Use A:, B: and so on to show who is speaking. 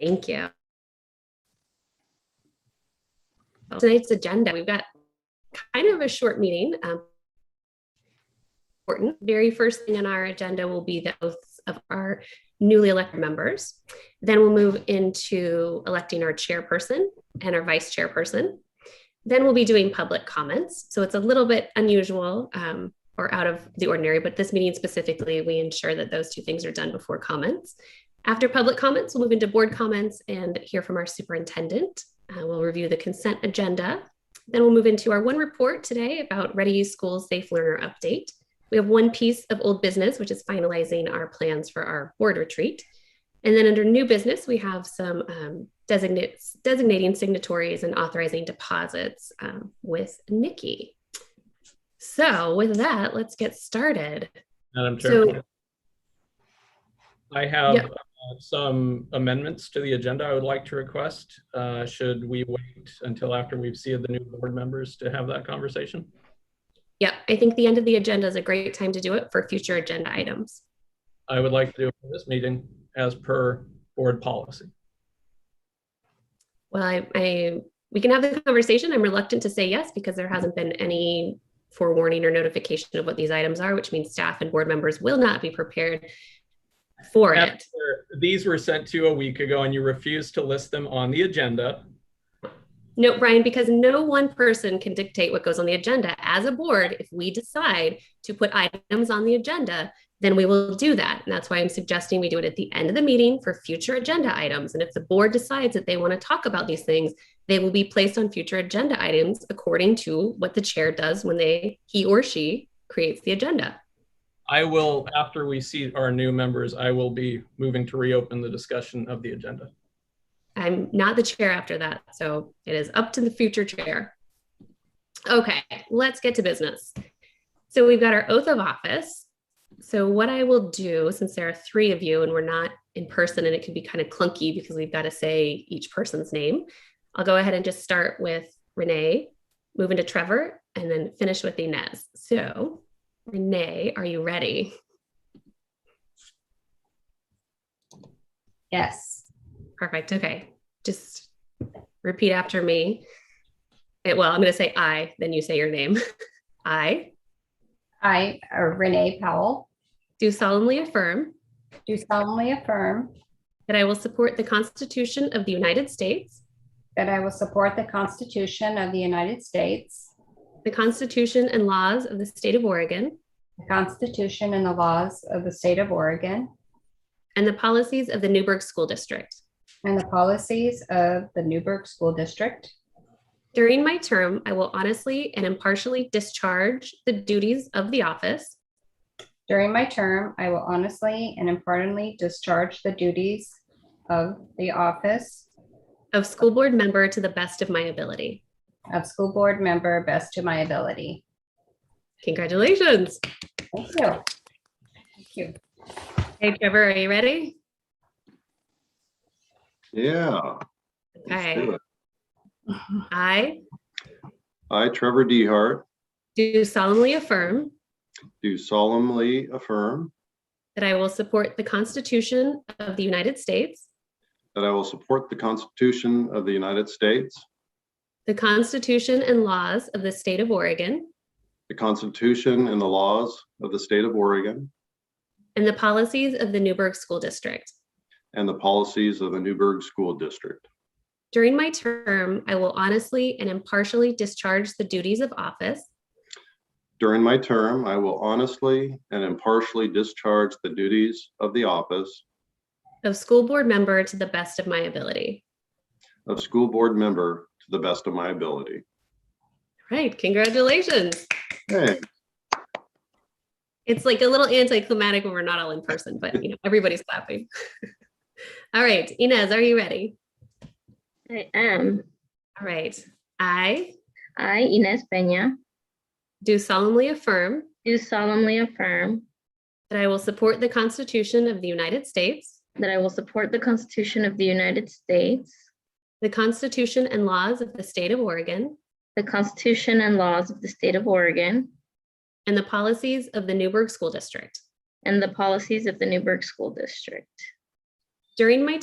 A: Thank you. Tonight's agenda, we've got kind of a short meeting. um, Important. Very first thing on our agenda will be the oaths of our newly elected members. Then we'll move into electing our chairperson and our vice chairperson. Then we'll be doing public comments. So it's a little bit unusual um, or out of the ordinary, but this meeting specifically, we ensure that those two things are done before comments. After public comments, we'll move into board comments and hear from our superintendent. Uh, we'll review the consent agenda. Then we'll move into our one report today about Ready Use Schools Safe Learner Update. We have one piece of old business, which is finalizing our plans for our board retreat. And then under new business, we have some um, designates, designating signatories and authorizing deposits um, with Nikki. So with that, let's get started.
B: Madam
A: So-
B: Chair. I have
A: Yep.
B: uh, some amendments to the agenda I would like to request. Uh, Should we wait until after we've seated the new board members to have that conversation?
A: Yep, I think the end of the agenda is a great time to do it for future agenda items.
B: I would like to do it for this meeting as per board policy.
A: Well, I, I we can have the conversation. I'm reluctant to say yes because there hasn't been any forewarning or notification of what these items are, which means staff and board members will not be prepared for it.
B: After- These were sent to you a week ago and you refused to list them on the agenda.
A: No, Brian, because no one person can dictate what goes on the agenda. As a board, if we decide to put items on the agenda, then we will do that. And that's why I'm suggesting we do it at the end of the meeting for future agenda items. And if the board decides that they want to talk about these things, they will be placed on future agenda items according to what the chair does when they, he or she creates the agenda.
B: I will, after we see our new members, I will be moving to reopen the discussion of the agenda.
A: I'm not the chair after that, so it is up to the future chair. Okay, let's get to business. So we've got our oath of office. So what I will do, since there are three of you and we're not in person and it can be kind of clunky because we've got to say each person's name, I'll go ahead and just start with Renee, move into Trevor, and then finish with Inez. So Renee, are you ready?
C: Yes.
A: Perfect. Okay. Just repeat after me. Eh, well, I'm going to say I, then you say your name. I
C: I, uh, Renee Powell,
A: do solemnly affirm
C: do solemnly affirm
A: that I will support the Constitution of the United States,
C: that I will support the Constitution of the United States,
A: the Constitution and laws of the state of Oregon,
C: the Constitution and the laws of the state of Oregon,
A: and the policies of the Newburgh School District.
C: and the policies of the Newburgh School District.
A: During my term, I will honestly and impartially discharge the duties of the office
C: During my term, I will honestly and impartially discharge the duties of the office
A: of school board member to the best of my ability.
C: of school board member best to my ability.
A: Congratulations.
C: Thank you. Thank you.
A: Hey, Trevor, are you ready?
D: Yeah. let's
A: Okay.
D: do it.
A: I
D: I, Trevor Dehart,
A: Do solemnly affirm
D: do solemnly affirm
A: that I will support the Constitution of the United States,
D: that I will support the Constitution of the United States,
A: the Constitution and laws of the State of Oregon,
D: the Constitution and the laws of the state of Oregon,
A: and the policies of the Newburgh School District.
D: and the policies of the Newburgh School District.
A: During my term, I will honestly and impartially discharge the duties of office
D: During my term, I will honestly and impartially discharge the duties of the office
A: of school board member to the best of my ability.
D: of school board member to the best of my ability.
A: All Right, congratulations.
D: Hey,
A: It's like a little anticlimactic when we're not all in person, but you know, everybody's clapping. All right, Inez, are you ready?
E: I am.
A: All right. I
E: I, Inez Peña,
A: do solemnly affirm
E: do solemnly affirm
A: That I will support the Constitution of the United States,
E: that I will support the Constitution of the United States,
A: the Constitution and laws of the State of Oregon,
E: the Constitution and laws of the State of Oregon,
A: and the policies of the Newburgh School District.
E: and the policies of the Newburgh School District.
A: During my